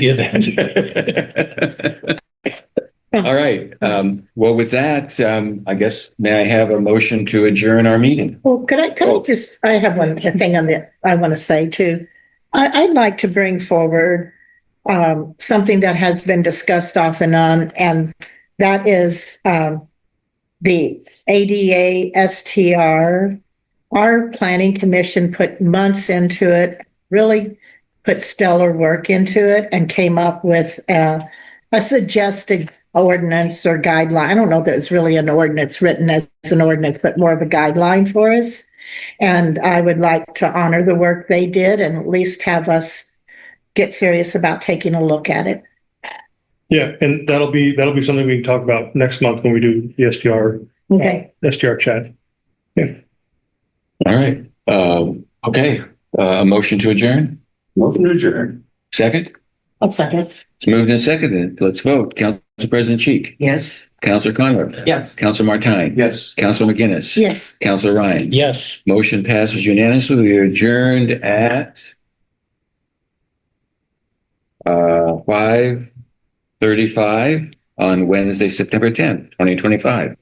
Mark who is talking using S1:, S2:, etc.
S1: hear that. All right, um, well, with that, um, I guess, may I have a motion to adjourn our meeting?
S2: Well, could I, could I
S1: Oh.
S2: just, I have one thing on that I want to say too. I, I'd like to bring forward um, something that has been discussed off and on, and that is um, the ADA STR. Our planning commission put months into it, really put stellar work into it and came up with uh, a suggested ordinance or guideline. I don't know that it's really an ordinance written as as an ordinance, but more of a guideline for us. And I would like to honor the work they did and at least have us get serious about taking a look at it.
S3: Yeah, and that'll be, that'll be something we can talk about next month when we do the SDR,
S2: Okay,
S3: SDR chat.
S1: All right, um, okay, uh, a motion to adjourn?
S4: Welcome to adjourn.
S1: Second?
S2: I'll second.
S1: It's moved and seconded. Let's vote. Council President Cheek,
S5: Yes.
S1: Councilor Conrad.
S5: Yes.
S1: Councilor Martine.
S4: Yes.
S1: Councilor McGinnis.
S2: Yes.
S1: Councilor Ryan.
S5: Yes.
S1: Motion passes unanimously. We are adjourned at uh, five thirty-five on Wednesday, September tenth, twenty twenty-five.